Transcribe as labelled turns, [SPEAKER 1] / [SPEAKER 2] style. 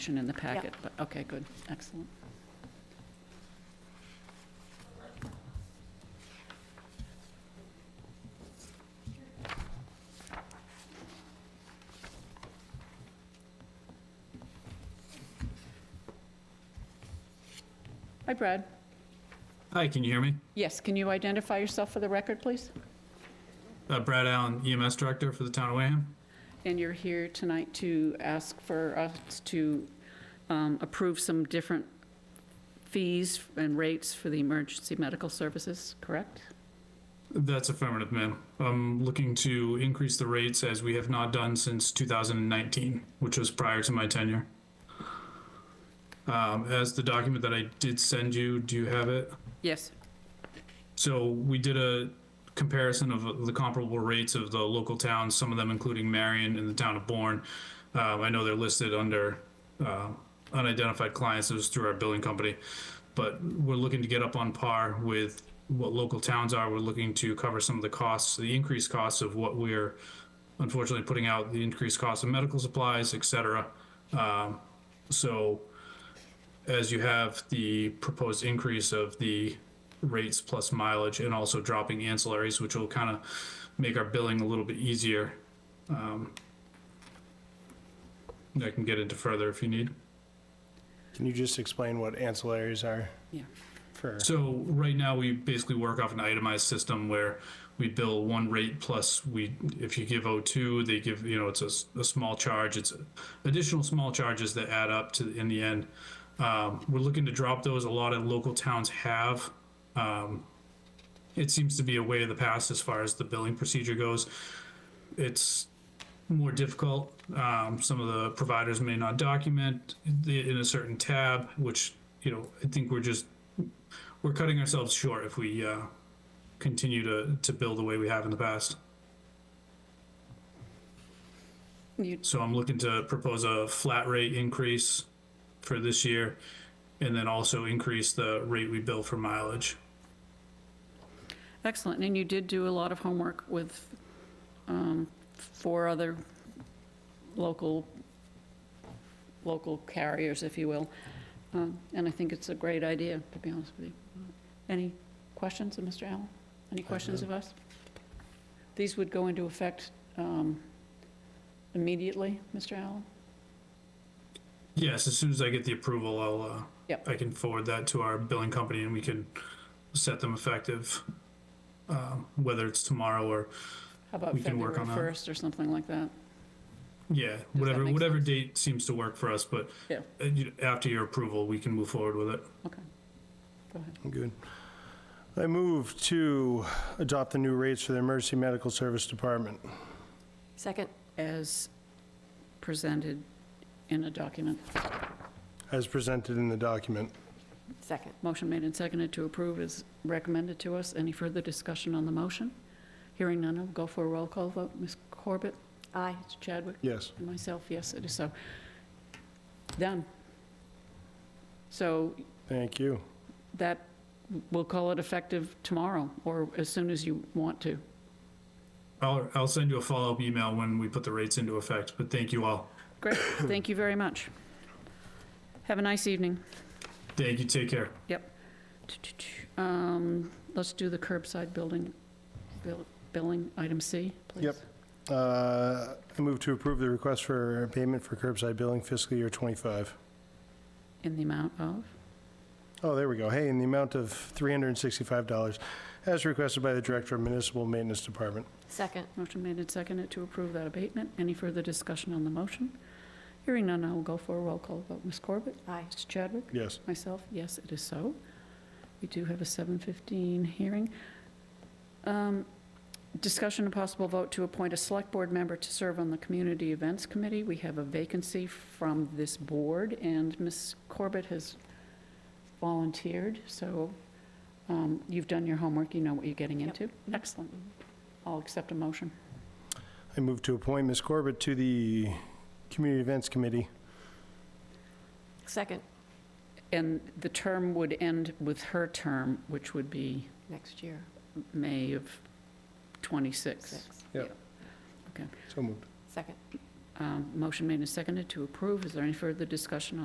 [SPEAKER 1] action in the packet, but, okay, good, excellent. Hi, Brad.
[SPEAKER 2] Hi, can you hear me?
[SPEAKER 1] Yes, can you identify yourself for the record, please?
[SPEAKER 2] Uh, Brad Allen, EMS Director for the Town of Wareham.
[SPEAKER 1] And you're here tonight to ask for us to um, approve some different fees and rates for the emergency medical services, correct?
[SPEAKER 2] That's affirmative, ma'am. I'm looking to increase the rates as we have not done since 2019, which was prior to my tenure. Um, As the document that I did send you, do you have it?
[SPEAKER 1] Yes.
[SPEAKER 2] So we did a comparison of the comparable rates of the local towns, some of them including Marion and the town of Bourne. Um, I know they're listed under uh, unidentified clients, it was through our billing company. But we're looking to get up on par with what local towns are. We're looking to cover some of the costs, the increased costs of what we're unfortunately putting out, the increased cost of medical supplies, et cetera. Um, So as you have the proposed increase of the rates plus mileage and also dropping ancillaries, which will kind of make our billing a little bit easier. Um, I can get into further if you need.
[SPEAKER 3] Can you just explain what ancillaries are
[SPEAKER 1] Yeah.
[SPEAKER 3] for?
[SPEAKER 2] So right now, we basically work off an itemized system where we bill one rate plus we, if you give O2, they give, you know, it's a, s- a small charge. It's additional small charges that add up to, in the end. Um, we're looking to drop those. A lot of local towns have. Um, it seems to be a way of the past as far as the billing procedure goes. It's more difficult. Um, some of the providers may not document the, in a certain tab, which, you know, I think we're just we're cutting ourselves short if we uh, continue to, to build the way we have in the past.
[SPEAKER 1] You,
[SPEAKER 2] So I'm looking to propose a flat rate increase for this year and then also increase the rate we bill for mileage.
[SPEAKER 1] excellent, and you did do a lot of homework with um, four other local, local carriers, if you will. Um, And I think it's a great idea, to be honest with you. Any questions of Mr. Allen? Any questions of us? These would go into effect um, immediately, Mr. Allen?
[SPEAKER 2] Yes, as soon as I get the approval, I'll uh,
[SPEAKER 1] Yep.
[SPEAKER 2] I can forward that to our billing company and we can set them effective, um, whether it's tomorrow or
[SPEAKER 1] How about
[SPEAKER 2] We can work
[SPEAKER 1] February
[SPEAKER 2] on that.
[SPEAKER 1] 1st or something like that?
[SPEAKER 2] yeah, whatever
[SPEAKER 1] make
[SPEAKER 2] whatever
[SPEAKER 1] sense?
[SPEAKER 2] date seems to work for us. But
[SPEAKER 1] Yeah.
[SPEAKER 2] uh, you- after your approval, we can move forward with it.
[SPEAKER 1] Okay. Go ahead.
[SPEAKER 3] Good. I move to adopt the new rates for the Emergency Medical Service Department.
[SPEAKER 4] Second.
[SPEAKER 1] As presented in a document.
[SPEAKER 3] As presented in the document.
[SPEAKER 4] Second.
[SPEAKER 1] Motion made and seconded to approve is recommended to us. Any further discussion on the motion? Hearing none, I'll go for a roll call vote. Ms. Corbett?
[SPEAKER 4] Aye.
[SPEAKER 1] Mr. Chadwick?
[SPEAKER 3] Yes.
[SPEAKER 1] And myself, yes, it is so. Done. So
[SPEAKER 3] Thank you.
[SPEAKER 1] that, we'll call it effective tomorrow, or as soon as you want to.
[SPEAKER 2] I'll, I'll send you a follow-up email when we put the rates into effect, but thank you all.
[SPEAKER 1] Great, thank you very much. Have a nice evening.
[SPEAKER 2] Thank you, take care.
[SPEAKER 1] Um, Let's do the curbside building, bill- billing, item C, please.
[SPEAKER 3] Yep. Uh, I move to approve the request for payment for curbside billing fiscal year '25.
[SPEAKER 1] In the amount of?
[SPEAKER 3] Oh, there we go. Hey, in the amount of $365, as requested by the Director of Municipal Maintenance Department.
[SPEAKER 4] Second.
[SPEAKER 1] Motion made and seconded to approve that abatement. Any further discussion on the motion? Hearing none, I will go for a roll call vote. Ms. Corbett?
[SPEAKER 4] Aye.
[SPEAKER 1] Mr. Chadwick?
[SPEAKER 3] Yes.
[SPEAKER 1] Myself, yes, it is so. We do have a 7:15 hearing. Um, Discussion and possible vote to appoint a Select Board member to serve on the Community Events Committee. We have a vacancy from this board, and Ms. Corbett has volunteered, so um, you've done your homework, you know what you're getting
[SPEAKER 4] Yep.
[SPEAKER 1] into. Excellent. I'll accept a motion.
[SPEAKER 3] I move to appoint Ms. Corbett to the Community Events Committee.
[SPEAKER 4] Second.
[SPEAKER 1] And the term would end with her term, which would be
[SPEAKER 4] Next year.
[SPEAKER 1] May of 26.
[SPEAKER 4] Six.
[SPEAKER 3] Yep. So moved.
[SPEAKER 4] Second.
[SPEAKER 1] Um, Um, Motion made and seconded to approve. Is there any further discussion on?